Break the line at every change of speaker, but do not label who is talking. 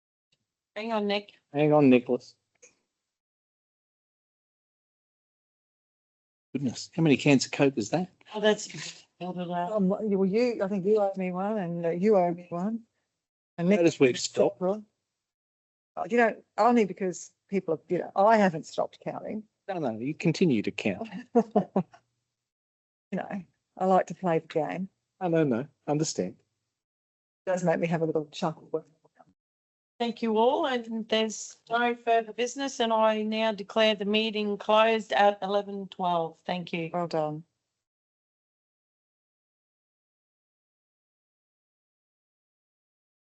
Hang on, Nick.
Hang on, Nicholas. Goodness, how many cans of Coke is that?
Oh, that's. filled it out.
Um, well, you, I think you owe me one and uh, you owe me one. And Nick-
Notice we've stopped.
Uh, You know, only because people, have- you know, I haven't stopped counting,
No, no, you continue to count.
you know, I like to play the game.
I no, no, understand.
It does make me have a little chuckle. when-
Thank you all, and there's no further business, and I now declare the meeting closed at eleven twelve. Thank you.
Well done.